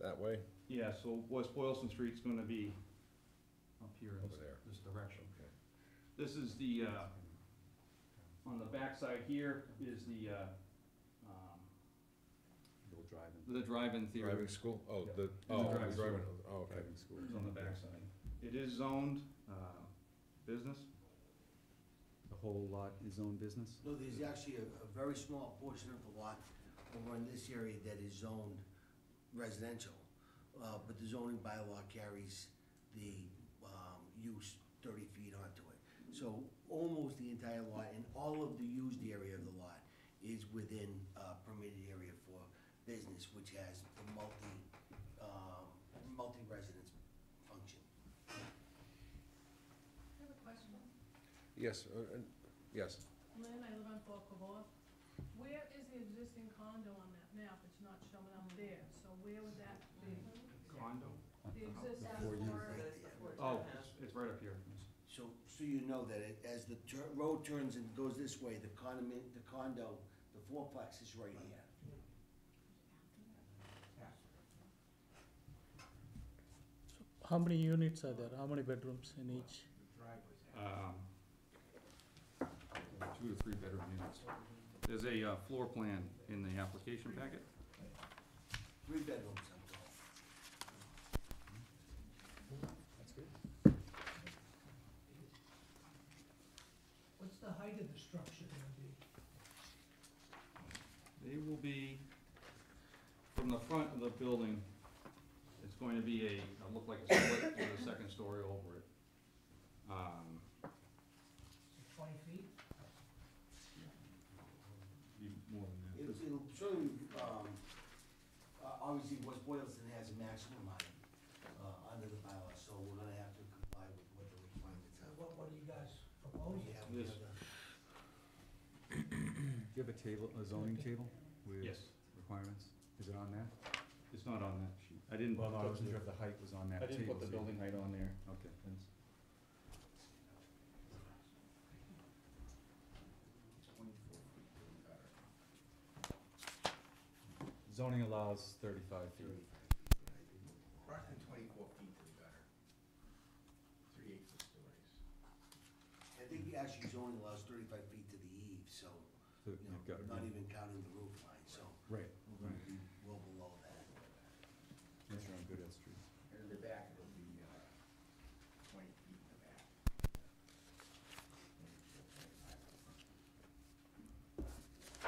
that way? Yeah, so West Boylston Street's gonna be up here in Over there. this direction. Okay. This is the, uh, on the backside here is the, uh, um, Little driving, the drive-in theater Driving school? Oh, Yeah. the, the oh, the driving school. driving, oh, okay. driving school. is on the backside. It is zoned, uh, business. The whole lot is own business? No, there's actually a, a very small portion of the lot over in this area that is zoned residential. Uh, but the zoning bylaw carries the, um, use thirty feet onto it. So almost the entire lot and all of the used area of the lot is within, uh, permitted area for business, which has the multi, um, multi-residence function. I have a question. Yes, uh, and- yes. Lynn, I live on Fort Cavour. Where is the existing condo on that map? It's not showing up there, so where would that be? Condo? Uh, The existing. Before you- Oh, it's, it's right up here. It's- So, so you know that it- as the tur- road turns and goes this way, the condominium, the condo, the fourplex is right here. How many units are there? How many bedrooms in each? um, two to three bedroom units. There's a uh, floor plan in the application packet. Three bedrooms, I'm told. What's the height of the structure gonna be? They will be, from the front of the building, it's going to be a, it'll look like a split with a second story over it. Um, Is it Twenty feet? be more than It'll, it'll show you, um, uh, obviously West Boylston has a maximum height, uh, under the bylaw, so we're gonna have to comply with what the requirements So are. what, what are you guys Oh, proposing? yeah, we have This- the- Do you have a table, a zoning table that. with Yes, requirements? Is it on that? it's not on that sheet. I didn't. Well, no, I put wasn't the- sure if the height was on that I table. didn't put the so you- building height on there. Okay. Zoning allows thirty-five feet. Approximately twenty-four feet to the gutter. Three eighths of stories. I think actually zoning allows thirty-five feet to the eave, so, So you know, you've got- not even counting the roof line, so Right, we're gonna be well below that. that's on Goodell Street. And in the back, it'll be, uh, twenty feet in the back.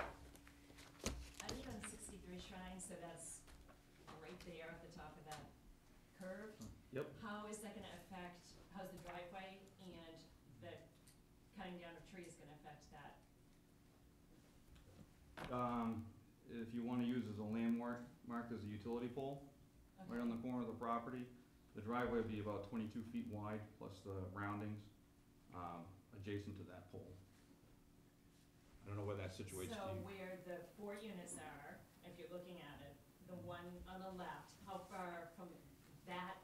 I live on sixty-three Shrine, so that's right there at the top of that curve. Yep. How is that gonna affect, how's the driveway and the cutting down of trees gonna affect that? Um, if you wanna use as a landmark, marked as a utility pole, right on the corner of the property. The driveway would be about twenty-two feet wide, plus the roundings, um, adjacent to that pole. I don't know where that situates to So you. where the four units are, if you're looking at it, the one on the left, how far from that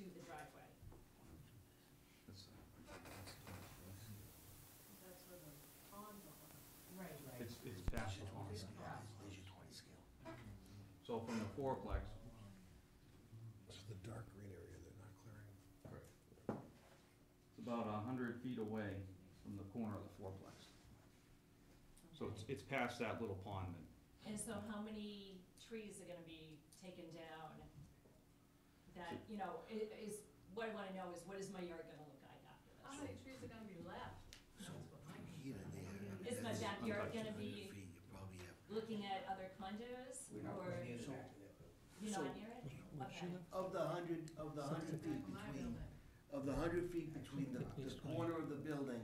to the driveway? It's- That's where the condo. Right, right. It's, it's past There's the your corner. twenty scale, there's your twenty scale. So from the fourplex, This is the dark green area they're not clearing. it's about a hundred feet away from the corner of the fourplex. So it's, it's past that little pond then. And so how many trees are gonna be taken down? That, you know, i- is, what I wanna know is what is my yard gonna look like after How this? many trees are gonna be left? So here and there. Is my that's backyard gonna 200 be- feet, You probably have. Looking at other condos We're not or looking at So, that. you're so- not near it? Okay. Of the hundred, of the hundred Back feet of my between, building. of the hundred feet between the, the corner of the building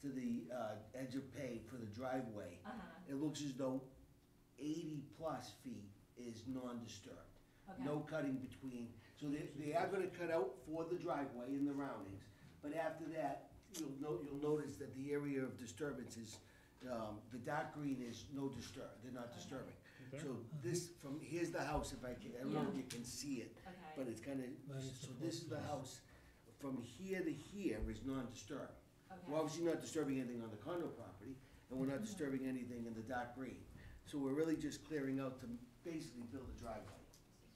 to the, uh, edge of pay for the driveway, Uh-huh, it looks as though eighty plus feet is non-disturbed. okay. No cutting between, so they, they are gonna cut out for the driveway and the roundings, but after that, you'll note, you'll notice that the area of disturbance is, um, the dark green is no disturb, they're not disturbing. So this, from, here's the house, if I can, I don't know if you can see it, Okay, but it's kinda, Where is so the this is the fourplex? house, from here to here is non-disturbed. We're okay. obviously not disturbing anything on the condo property, and Mm-hmm. we're not disturbing anything in the dark green. So we're really just clearing out to basically build a driveway.